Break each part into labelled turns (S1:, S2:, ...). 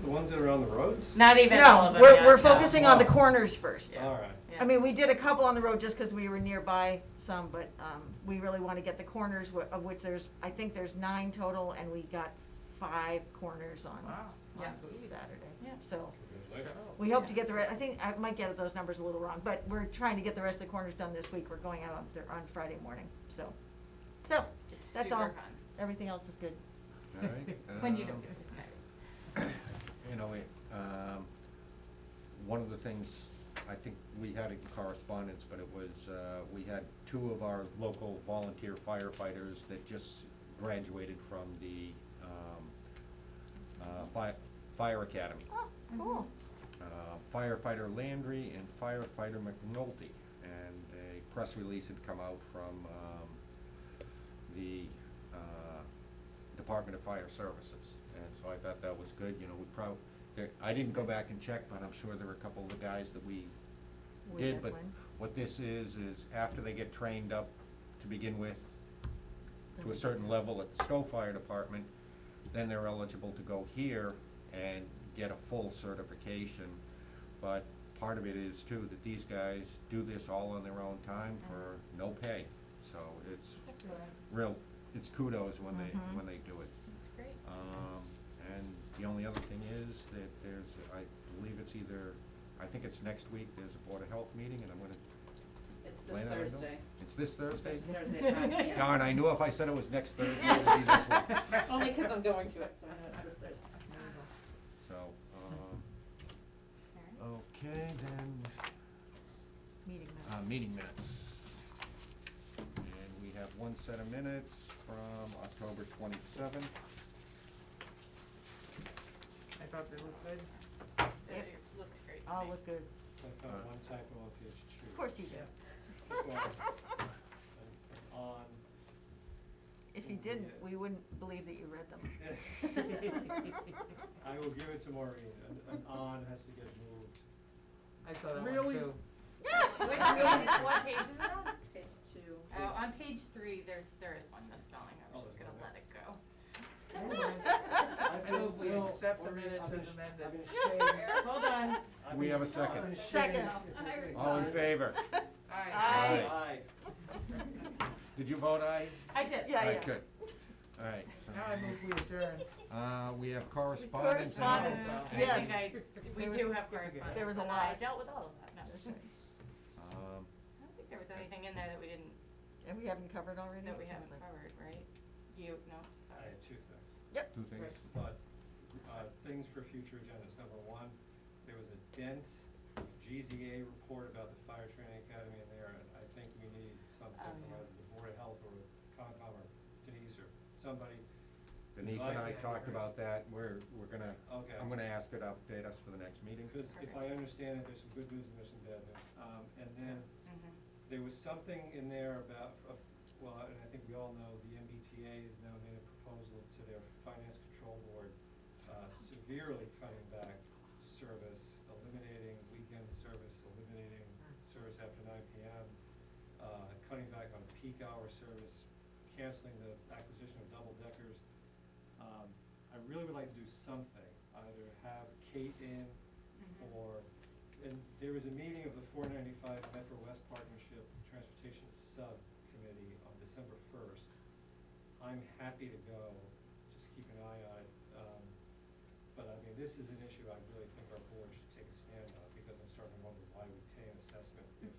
S1: ones that are on the roads?
S2: Not even all
S3: No,
S2: of them.
S3: we're,
S2: yeah,
S3: we're
S2: no.
S3: focusing on the corners first.
S1: All right.
S2: Yeah.
S3: I mean, we did a couple on the road just because we were nearby some, but, um, we really want to get the corners wh- of which there's, I think there's nine total and we got five corners on, on
S2: Yes. Yeah.
S3: Saturday. So
S1: Congratulations.
S3: we hope to
S2: Yeah.
S3: get the, re- I think, I might get those numbers a little wrong, but we're trying to get the rest of the corners done this week. We're going out on, Thur- on Friday morning, so. So,
S2: It's
S3: that's
S2: super
S3: all.
S2: fun.
S3: Everything else is good.
S4: All right.
S2: When you don't
S4: um,
S2: get discounted.
S4: You know, it, um, one of the things, I think we had it in correspondence, but it was, uh, we had two of our local volunteer firefighters that just graduated from the, um, uh, fi- fire academy.
S3: Oh, cool.
S4: uh, firefighter Landry and firefighter McNulty. And a press release had come out from um, the uh, Department of Fire Services. And so I thought that was good, you know, we prob, there- I didn't go back and check, but I'm sure there were a couple of the guys that we
S3: We
S4: did.
S3: had
S4: But
S3: one.
S4: what this is, is after they get trained up to begin with, to a certain level at the Stowe Fire Department, then they're eligible to go here and get a full certification. But part of it is too, that these guys do this all on their own time for no pay. So it's
S2: That's good.
S4: real, it's kudos when they,
S3: Mhm.
S4: when they do it.
S2: That's great.
S4: Um, and the only other thing is that there's, I believe it's either, I think it's next week, there's a Board of Health meeting and I'm gonna.
S5: It's this
S4: plan it, I don't-
S5: Thursday.
S4: It's this Thursday?
S5: It's Thursday, Friday, yeah.
S4: Darn, I knew if I said it was next Thursday, it would be this one.
S5: Only because I'm going to it, so I know it's this Thursday.
S4: So, um,
S2: All right.
S4: okay, then,
S3: Meeting
S4: uh,
S3: minutes.
S4: meeting minutes. And we have one set of minutes from October twenty-seventh.
S6: I thought they looked good.
S2: It looked great to
S3: All
S2: me.
S3: look good.
S1: I found one typo on page two.
S3: Of course you did.
S1: On,
S3: If you didn't, we wouldn't believe that you read them.
S1: I will give it to Maureen, an, an on has to get moved.
S6: I saw that one
S4: Really?
S6: too.
S2: Which page is, what page is it on?
S5: Page two.
S2: Oh, on page three, there's, there is one misspelling, I was
S1: Oh,
S2: just gonna
S1: okay.
S2: let it go.
S1: I
S6: I move we
S1: will-
S6: accept the
S1: Maureen,
S6: minutes
S1: I've been
S6: as
S1: sh-
S6: amended.
S1: I've been shaving-
S2: Hold on,
S1: I've
S4: We
S1: been-
S4: have a second.
S1: I've been shaving
S3: Second.
S1: since the day.
S4: All in favor?
S6: Aye.
S3: Aye.
S1: Aye.
S4: Did you vote aye?
S2: I did.
S3: Yeah,
S4: Alright,
S3: yeah.
S4: Good. All right.
S6: Now I move we adjourn.
S4: Uh, we have correspondence. Uh, and-
S3: Correspondence.
S2: I think
S3: Yes.
S2: I- We
S3: There was-
S2: do have correspondence.
S3: There was a
S2: and I
S3: lot.
S2: dealt with all of that, no. I
S4: Um,
S2: don't think there was anything in there that we didn't,
S3: And we haven't covered already?
S2: that we
S3: It sounds
S2: haven't
S3: like-
S2: covered, right? You,
S1: I
S2: no, sorry.
S1: had two things.
S4: two things.
S1: but, uh, things for future agendas. Number one, there was a dense GZA report about the fire training academy in there, and I think we need something
S2: Oh,
S1: from
S2: yeah.
S1: either the Board of Health or Concom or Denise or somebody.
S4: Denise and I talked about that. We're, we're gonna,
S1: Okay.
S4: I'm gonna ask her to update us for the next meeting.
S1: Because if I understand it, there's some good news and there's some bad news. Um, and then
S2: Mhm.
S1: there was something in there about, uh, well, and I think we all know, the MBTA has now made a proposal to their finance control board, uh, severely cutting back service, eliminating weekend service, eliminating service after nine PM, uh, cutting back on peak hour service, canceling the acquisition of double deckers. Um, I really would like to do something, either have Kate in
S2: Mm-hmm.
S1: or, and there was a meeting of the four ninety-five Metro West Partnership Transportation Subcommittee on December first. I'm happy to go, just keep an eye on it, um, but I mean, this is an issue I really think our board should take a stand on, because I'm starting to wonder why we pay an assessment if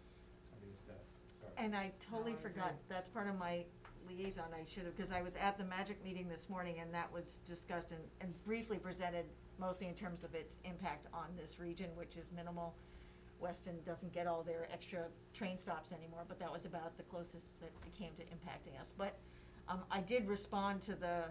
S1: somebody's dead, sorry.
S3: And I totally
S6: No, I
S3: forgot,
S6: agree.
S3: that's part of my liaison, I should have, because I was at the magic meeting this morning and that was discussed and, and briefly presented, mostly in terms of its impact on this region, which is minimal. Weston doesn't get all their extra train stops anymore, but that was about the closest that it came to impacting us. But, um, I did respond to the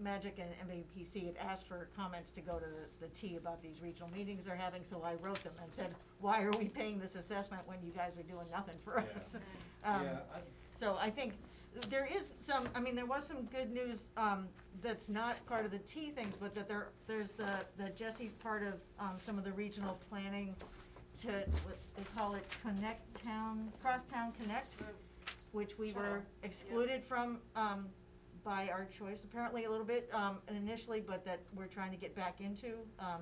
S3: magic and MAPC had asked for comments to go to the T about these regional meetings they're having, so I wrote them and said, why are we paying this assessment when you guys are doing nothing for
S1: Yeah.
S3: us? Um,
S1: Yeah, I,
S3: So I think there is some, I mean, there was some good news, um, that's not part of the T things, but that there, there's the, the Jesse's part of, um, some of the regional planning to, what, they call it Connect Town, Crosstown Connect, which we were
S2: Sure.
S3: excluded from, um, by our choice apparently a little bit, um, initially, but that we're trying to get back into, um,